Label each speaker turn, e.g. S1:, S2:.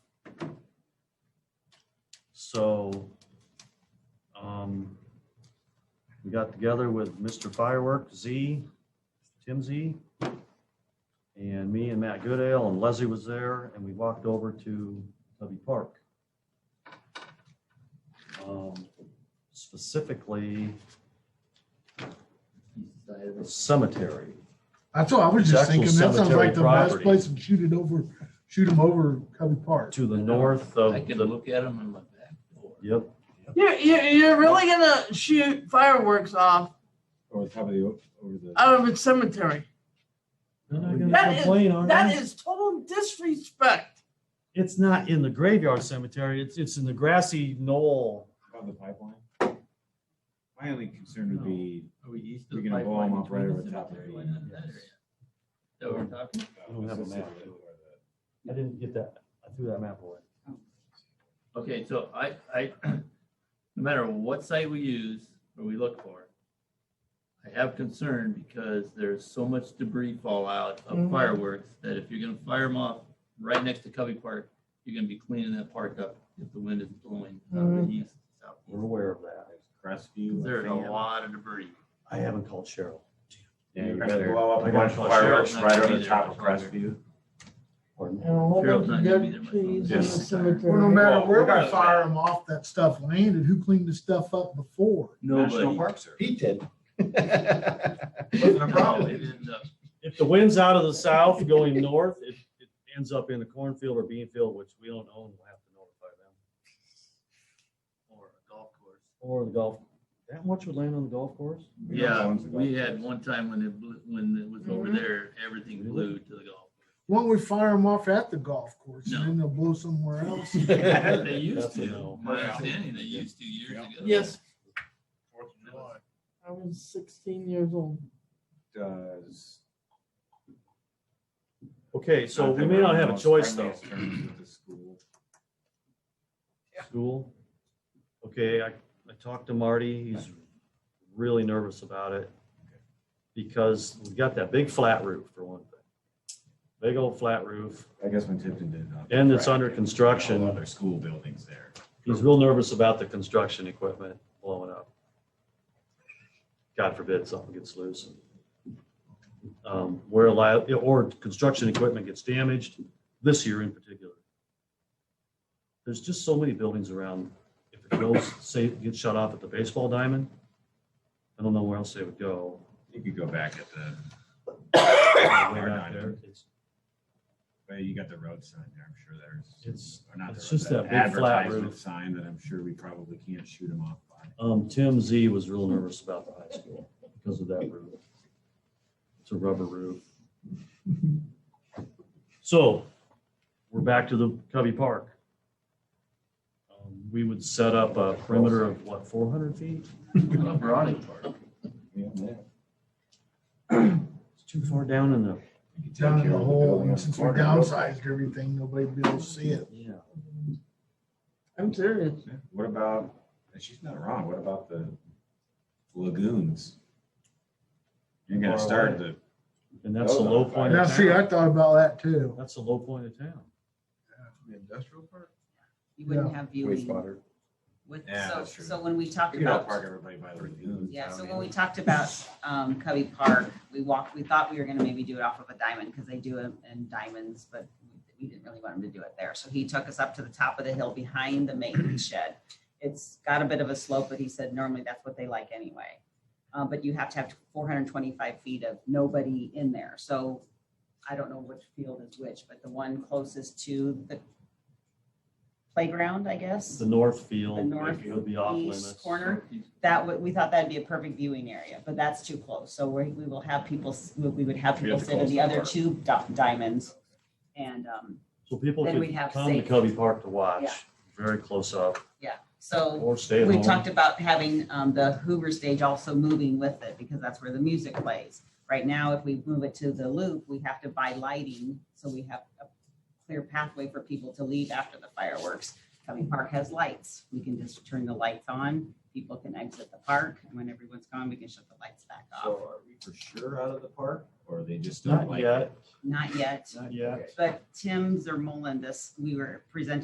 S1: um, We got together with Mr. Firework, Z, Tim Z, and me and Matt Goodale, and Leslie was there, and we walked over to Tubby Park. Um, Specifically, the cemetery.
S2: That's all, I was just
S1: It's actual
S2: thinking, that sounds
S1: cemetery
S2: like the best
S1: property.
S2: place to shoot it over, shoot them over Covey Park.
S1: To the north of
S3: I can
S1: the,
S3: look at them in my back door.
S1: yep,
S4: You're, you're, you're really gonna shoot fireworks off
S5: Over the top of the, o- over the,
S4: out of a cemetery.
S1: They're not gonna
S4: That is-
S1: complain, are
S4: That
S1: they?
S4: is total disrespect.
S1: It's not in the graveyard cemetery, it's, it's in the grassy knoll.
S5: above the pipeline. My only concern
S1: No.
S5: would be,
S3: Are we east
S5: You're gonna blow 'em up right over top of it.
S3: That we're talking,
S5: uh,
S1: I don't have a map. I didn't get that, I threw that map away.
S3: okay, so I, I, no matter what site we use or we look for, I have concern because there's so much debris fallout of
S4: Mhm.
S5: Mm-hmm.
S3: fireworks that if you're gonna fire them off right next to Covey Park, you're gonna be cleaning that park up if the wind is blowing out of
S5: Mm-hmm.
S3: the east, south.
S1: We're aware of that.
S5: Crestview.
S3: There's a lot of debris.
S1: I haven't called Cheryl.
S5: Yeah, you're
S1: You
S5: gonna
S1: better-
S5: blow up
S1: I
S5: a
S1: gotta
S5: bunch of
S1: call
S5: fireworks
S3: Cheryl, not
S5: right
S3: gonna
S5: over
S3: be
S5: the
S3: there
S5: top of
S3: for Crestview.
S5: Crestview.
S1: Pardon?
S6: And a whole
S3: Carol's
S6: bunch
S3: not gonna
S6: of
S3: be there
S6: dead
S3: much
S6: trees
S3: longer.
S6: in the
S5: Yes.
S2: Well, no
S6: cemetery.
S2: matter where
S5: Well,
S2: we fire them off, that stuff landed, who cleaned the stuff up before?
S5: National
S3: Nobody.
S5: Park Service.
S7: He did.
S5: Wasn't a
S3: Nobody
S5: problem.
S3: ends up
S1: If the wind's out of the south going north, it, it ends up in a cornfield or bean field, which we don't own, we'll have to notify them.
S3: Or a golf course.
S1: Or the golf, that much would land on the golf course?
S5: We don't
S3: Yeah,
S5: own the golf
S3: we had
S5: course.
S3: one time when it blew, when it was over
S4: Mhm.
S3: there, everything blew to the golf.
S2: Why don't we fire them off at the golf course and then they'll blow somewhere else?
S3: course. They used
S1: That's a
S3: to,
S1: no.
S3: my understanding, they used to years ago.
S4: Yes, I was sixteen years old.
S5: Does.
S1: Okay, so
S5: Not
S1: we
S5: that
S1: may
S5: we're
S1: not
S5: on
S1: have a
S5: most
S1: choice though.
S5: friendliest terms with the school.
S1: School? Okay, I, I talked to Marty, he's really nervous about it. Because we've got that big flat roof for one thing. Big old flat roof,
S5: I guess when Tipton did. not-
S1: and it's under
S5: All
S1: construction.
S5: Other school buildings there.
S1: He's real nervous about the construction equipment blowing up. God forbid something gets loose. Um, Where a li- or construction equipment gets damaged, this year in particular. There's just so many buildings around, if it goes, say, it gets shut off at the baseball diamond, I don't know where else they would go.
S5: You could go back at the,
S1: Way back there. It's-
S5: well, you got the road sign there, I'm sure there's.
S1: It's-
S5: or not the
S1: it's
S5: road,
S1: just that
S5: the
S1: big flat
S5: advertisement
S1: roof.
S5: Sign that I'm sure we probably can't shoot them off by.
S1: Um, Tim Z was real nervous about the high school because of that roof. It's a rubber roof. So we're back to the Covey Park. Um, We would set up a perimeter of what, four hundred feet?
S3: Uh, Browning Park.
S5: Yeah, yeah.
S1: It's too far down in the,
S5: You could take
S2: Down in
S5: care
S2: the
S5: of
S2: hole,
S5: building up
S2: and since we
S5: front of the-
S2: downsized everything, nobody will be able to see it.
S1: yeah.
S4: I'm serious.
S5: Yeah, What about, and she's not wrong, what about the lagoons? You're gonna start the,
S1: And that's the low point
S2: Now,
S1: of
S2: Oh, see, I
S1: town.
S2: thought about that too.
S1: That's the low point of town.
S7: Industrial park?
S6: You wouldn't have viewing.
S7: Wastewater.
S6: With-
S5: Yeah,
S6: So,
S5: that's true.
S6: so when we talked
S5: you could out
S6: about
S5: park everybody by the lagoons.
S6: Yeah, so
S5: down
S6: when we
S5: in-
S6: talked about um, Covey Park, we walked, we thought we were gonna maybe do it off of a diamond, because they do it in diamonds, but we didn't really want him to do it there. So he took us up to the top of the hill behind the maintenance shed. It's got a bit of a slope, but he said normally that's what they like anyway. Uh, But you have to have four hundred and twenty-five feet of nobody in there, so I don't know which field is which, but the one closest to the playground, I guess
S1: The north
S6: The
S1: field
S6: north
S1: would be off
S6: east
S1: limits.
S6: corner. that would, we thought that'd be a perfect viewing area, but that's too close. So we, we will have people, s- we we would have
S5: We have
S6: people
S5: to
S6: sit in
S5: close
S6: the
S5: the
S6: other
S5: park.
S6: two di- diamonds. And, um,
S1: So people
S6: Then
S1: could
S6: we'd have
S1: come to
S6: safe-
S1: Covey Park to watch,
S6: Yeah.
S1: very close up,
S6: so
S1: or stay at
S6: we
S1: home.
S6: talked about having, um, the Hoover stage also moving with it because that's where the music plays. Right now, if we move it to the loop, we have to buy lighting, so we have a clear pathway for people to leave after the fireworks. Covey Park has lights. We can just turn the lights on. People can exit the park and when everyone's gone, we can shut the lights back
S5: So
S6: off.
S5: are we for sure out of the park, or are they just don't
S1: Not
S5: like? it?
S1: yet,
S6: Not yet.
S1: not yet.
S6: But Tim Zermolin, this, we were presenting